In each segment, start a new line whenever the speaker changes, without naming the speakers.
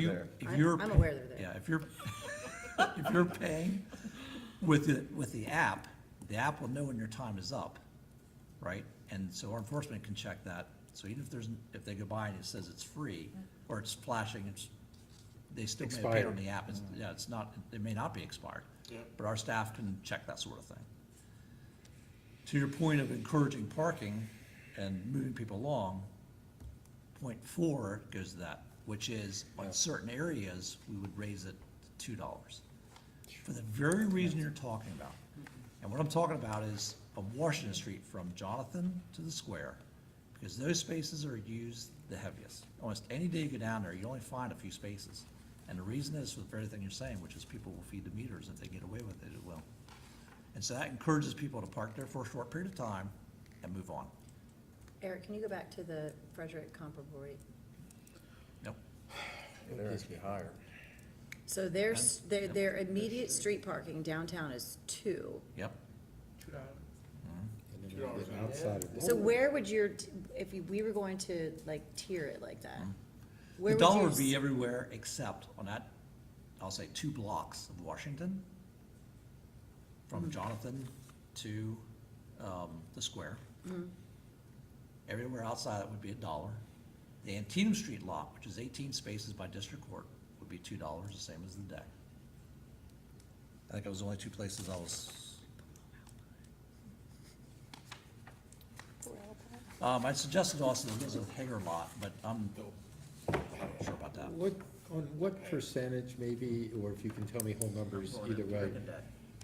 you-
there.
If
I'm-
you're.
I'm
pay-
aware they're there.
Yeah, if you're, if you're paying with the, with the app, the app will know when your time is up, right? And so our enforcement can check that. So even if there's, if they go by and it says it's free, or it's flashing, it's, they still may have paid on
Expired.
the app. It's,
Mm-hmm.
yeah, it's not, it may not be expired.
Yeah.
But our staff can check that sort of thing. To your point of encouraging parking and moving people along, point four goes to that, which is on certain areas, we would raise it to two dollars. For the very reason you're talking about. And what I'm talking about is on Washington Street from Jonathan to the square, because those spaces are used the heaviest. Almost any day you go down there, you only find a few spaces. And the reason is for the very thing you're saying, which is people will feed the meters if they get away with it, it will. And so that encourages people to park there for a short period of time and move on.
Eric, can you go back to the Frederick comparable rate?
Nope.
There has to be higher.
So their, s- their, their immediate street parking downtown is two.
Yep.
Outside of.
So where would your, t- if you- we were going to like tier it like that?
Mm. The
where
dollar
your
would be
s-
everywhere except on that, I'll say, two blocks of Washington,
Hmm.
from Jonathan to, um, the square.
Mm-hmm.
Everywhere outside that would be a dollar. The Antietam Street lot, which is eighteen spaces by district court, would be two dollars, the same as the deck. I think it was the only two places I was. Um, I suggested also the Elizabeth Hager lot, but I'm not sure about that.
What, on what percentage maybe, or if you can tell me whole numbers either way,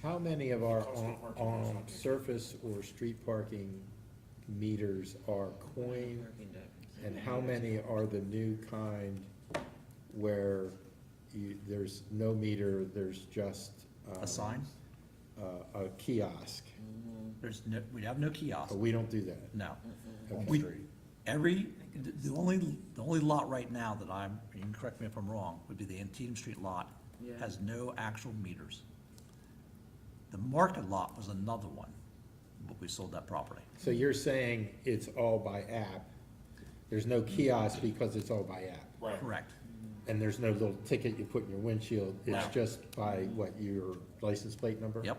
how many of our on, on surface or street parking meters are coin? And how many are the new kind where you, there's no meter, there's just. um,
A sign?
Uh, a kiosk.
There's no, we have no kiosk,
Oh, We don't do that.
no.
Okay.
We, every, the the only, the only lot right now that I'm, you can correct me if I'm wrong, would be the Antietam Street lot.
Yeah.
Has no actual meters. The Market lot was another one, but we sold that property.
So you're saying it's all by app? There's no kiosk because it's all by app?
Right.
Correct.
And there's no little ticket you put in your windshield, it's
No.
just by what, your license plate number?
Yep.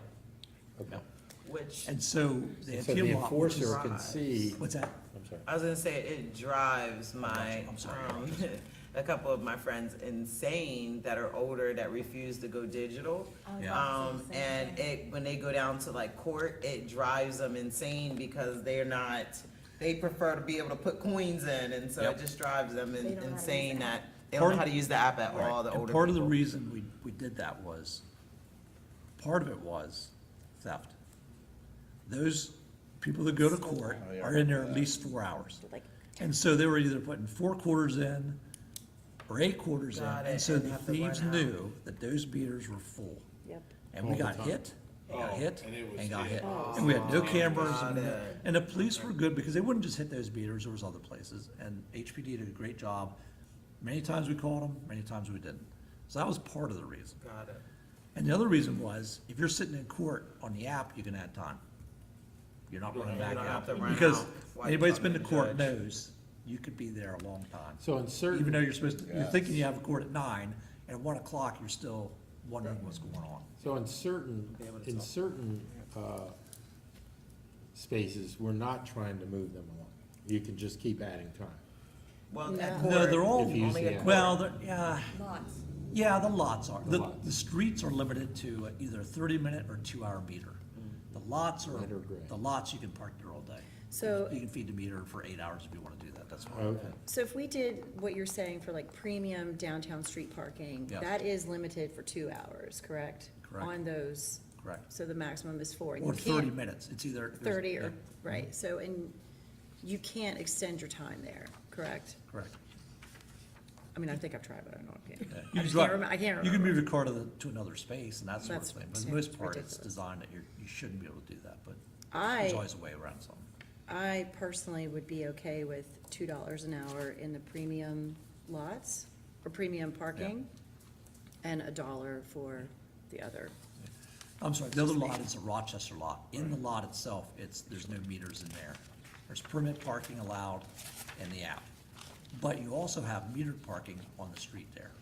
Okay.
Yep.
Which,
And so the
So the
Antietam lot, which is,
enforcer can see,
what's that?
I'm sorry,
I was gonna say, it drives my,
I'm sorry.
um, a couple of my friends insane that are older that refuse to go digital.
Oh,
Yeah.
Um, and it, when they go down to like court, it drives them insane because they're not, they prefer to be able to put coins in, and so
Yep.
it just drives them in-
They don't know how to use
insane
the
that they don't
Part-
know how to use Ah, the app at
Right.
all, the
And
older
part of the
people.
reason we, we did that was, part of it was theft. Those people that go to court
Oh,
are in there at least four hours.
Like,
And so they were either putting four quarters in or eight quarters in.
Got it,
And so
and
the
have to run
thieves
out.
knew that those beaters were full.
yep.
And we got hit, and got
Oh,
hit,
and it was
and got
hit.
hit. And we had no
Oh,
cameras.
got
and-
it.
And the police were good because they wouldn't just hit those beaters, there was other places. And HPD did a great job. Many times we called them, many times we didn't. So that was part of the reason.
Got it.
And the other reason was, if you're sitting in court on the app, you can add time. You're not running
You
back
don't have
out.
to run
Because
out while
anybody
you're
that's been to
talking to
court
the
knows, you could be there a long time.
so in
Even though
certain,
you're supposed to, you're thinking you have a court at nine, and at one o'clock, you're still wondering what's going on.
so in certain, in certain, uh, spaces, we're not trying to move them along. You can just keep adding time.
Well, at
No.
court.
No, they're all,
If you use
only
the
a
app.
well, they're- yeah,
Lots.
yeah, the lots are.
The
The,
lots.
the streets are limited to either a thirty-minute or two-hour meter.
Mm.
The lots are,
Lighter gray.
the lots, you can park there all day.
So-
You can feed the meter for eight hours if you wanna do that, that's fine.
Okay,
So if we did what you're saying for like premium downtown street parking,
Yeah.
that is limited for two hours, correct?
Correct.
On those,
Correct.
so the maximum is four. and you
Or thirty
can't-
minutes, it's either. there's-
Thirty
yeah,
or, right, so, and you can't extend your time there, correct?
Correct.
I mean, I think I've tried, but I don't know. if
Yeah.
I
You
just
drive-
can't remember, I can't remember.
You can move your car to, the- to another space and that sort of
That's-
thing, but for the
yeah,
most
it's
part, it's
ridiculous.
designed that you're, you shouldn't be able to do that, but there's
I,
always a way around something.
I personally would be okay with two dollars an hour in the premium lots, or premium parking, and a dollar for the other.
I'm sorry, the other lot is the Rochester lot. In the lot itself, it's, there's no meters in there. There's permit parking allowed in the app. But you also have metered parking on the street there.